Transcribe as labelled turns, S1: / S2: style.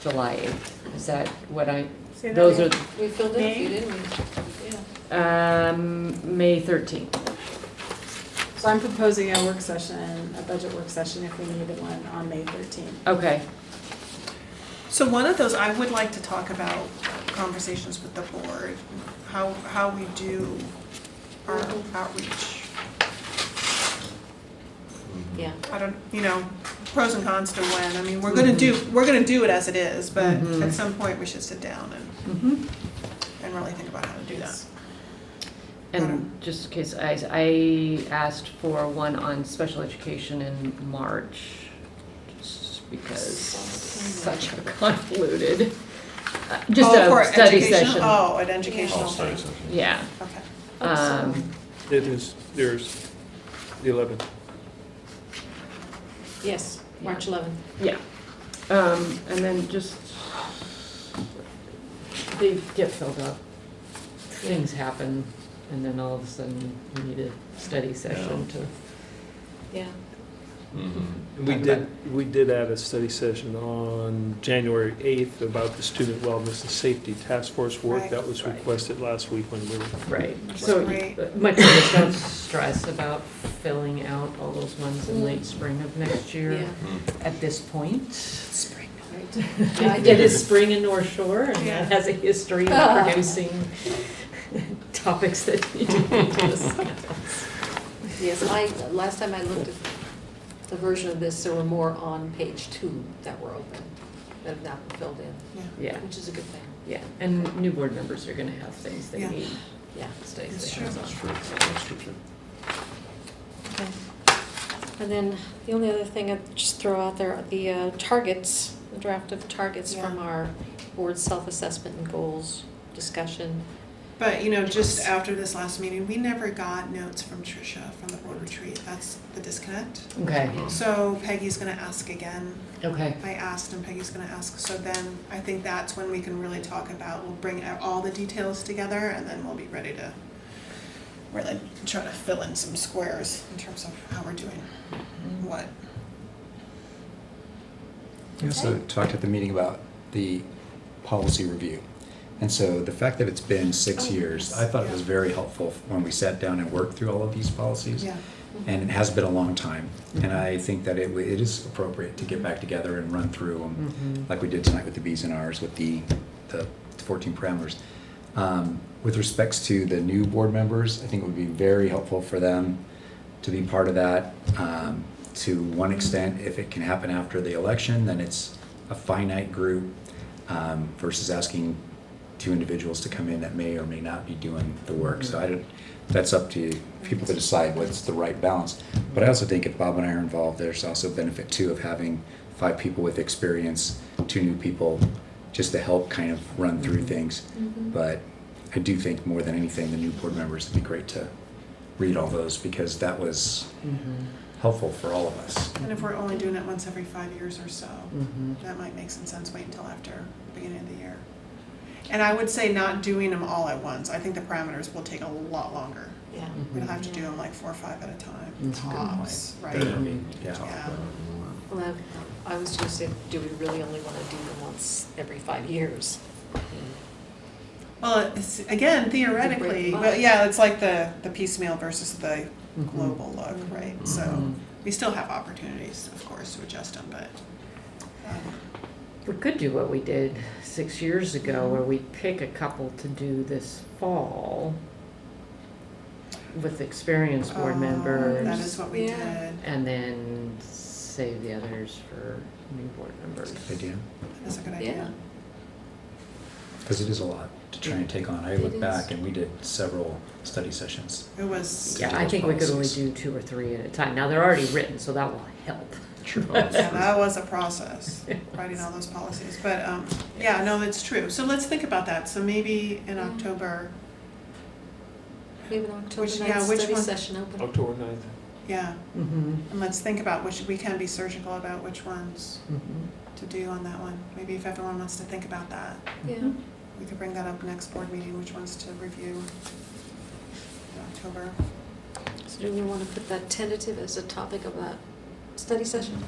S1: July 8th. Is that what I,
S2: Say that
S1: those are,
S2: again.
S3: We filled in a few,
S2: May?
S3: didn't we? Yeah.
S1: um, May 13th.
S2: So I'm proposing a work session, a budget work session if we needed one on May 13th.
S1: Okay,
S4: So one of those, I would like to talk about conversations with the board, how, how we do our outreach.
S3: Yeah.
S4: I don't, you know, pros and cons to when, I mean, we're gonna do,
S1: Mm-hmm.
S4: we're gonna do it as it is, but at some point, we should sit down and,
S1: Mhm.
S4: and really think about how to do that.
S1: and just in case, I, I asked for one on special education in March, just because such a convoluted, uh, just
S4: Oh, for
S1: a study
S4: educational-
S1: session.
S4: Oh, an
S5: All
S4: educational
S5: study
S4: thing,
S5: sessions.
S1: Yeah.
S4: okay.
S1: Um,
S6: It is, there's the 11th.
S3: Yes, March 11th.
S1: Yeah, um, and then just, they get filled up. Things happen, and then all of a sudden, we need a study session to.
S3: Yeah.
S5: Mhm.
S6: And we did, we did have a study session on January 8th about the student wellness and safety task force work
S4: Right.
S6: that was
S1: Right.
S6: requested last week when we were.
S1: Right.
S4: That's
S1: So,
S4: great.
S1: uh, my point is, don't stress about filling out all those ones in late spring of next year
S3: Yeah.
S5: Mhm.
S1: at this point.
S3: Spring. I
S1: It
S3: did Ah. it.
S1: is spring in North Shore, and
S4: Yeah.
S1: that has a history of producing topics that need to be discussed.
S3: Yes, I, last time I looked at the version of this, there were more on page two that were open, that have not been filled in,
S1: Yeah.
S3: which is a good thing.
S1: Yeah, and new board members are gonna have things they
S4: Yeah.
S1: need
S3: Yeah.
S1: studies
S4: That's
S1: they
S4: true.
S1: have on.
S5: That's true, that's true.
S3: Okay. And then the only other thing I'd just throw out there, are the uh, targets, the draft of targets from
S4: Yeah.
S3: our board self-assessment and goals discussion.
S4: But, you know, just after this last meeting, we never got notes from Tricia from the board retreat, that's the disconnect.
S1: Okay,
S4: So Peggy's gonna ask again,
S1: okay,
S4: I asked and Peggy's gonna ask, so then I think that's when we can really talk about, we'll bring out all the details together and then we'll be ready to really try to fill in some squares in terms of how we're doing what.
S7: We also talked at the meeting about the policy review. And so the fact that it's been six
S3: Oh,
S7: years,
S3: yes.
S7: I thought it was very helpful when we sat down and worked through all of these policies.
S4: Yeah,
S7: And it has been a long time. And I think that it, w- it is appropriate to get back together and run through them, like we did tonight with the Bs and Rs, with the, the 14 parameters. Um, With respects to the new board members, I think it would be very helpful for them to be part of that. Um, To one extent, if it can happen after the election, then it's a finite group um, versus asking two individuals to come in that may or may not be doing the work. So I don't, that's up to people to decide what's the right balance. But I also think if Bob and I are involved, there's also benefit too of having five people with experience, two new people, just to help kind of run through
S3: Mm-hmm.
S7: things. But I do think more than anything, the new board members would be great to read all those because that was
S1: mhm,
S7: helpful for all of us.
S4: and if we're only doing it once every five years or so,
S1: mhm.
S4: that might make some sense, wait until after the beginning of the year. And I would say not doing them all at once, I think the parameters will take a lot longer.
S3: Yeah.
S1: mm-hmm,
S4: We'll have to do them like four or five at a time,
S1: That's a good point.
S4: tops, right?
S7: Better than me, yeah.
S4: Yeah.
S3: Well, I I was gonna say, do we really only wanna do them once every five years?
S4: Well, it's, again, theoretically, but yeah, it's like the, the piecemeal versus the
S1: Mhm.
S4: global look, right? So
S1: Mhm.
S4: we still have opportunities, of course, to adjust them, but. um,
S1: We could do what we did six years ago, where we pick a couple to do this fall with experienced board
S4: um, That
S1: members,
S4: is what we
S3: Yeah.
S4: did.
S1: and then save the others for new board members.
S7: Idea?
S4: That's a good idea.
S7: Because it is a lot to try and take on. I
S3: It
S7: look
S3: is.
S7: back and we did several study sessions.
S4: It was,
S1: Yeah,
S7: do
S1: I
S7: those
S1: think we could only
S7: policies.
S1: do two or three at a time. Now, they're already written, so that will help.
S4: yeah, that was a process, writing all those policies. But, um, yeah, no, it's true. So let's think about that. So maybe in
S3: Yeah.
S4: October,
S3: We have an October
S4: Which- yeah,
S3: ninth
S4: which
S3: study
S4: one?
S3: session open.
S6: October 9th.
S4: yeah,
S1: Mm-hmm,
S4: and let's think about which, we can be surgical about which ones
S1: mm-hmm.
S4: to do on that one. Maybe if everyone wants to think about that.
S3: Yeah,
S4: We could bring that up next board meeting, which ones to review in October.
S3: so do we wanna put that tentative as a topic of that study session?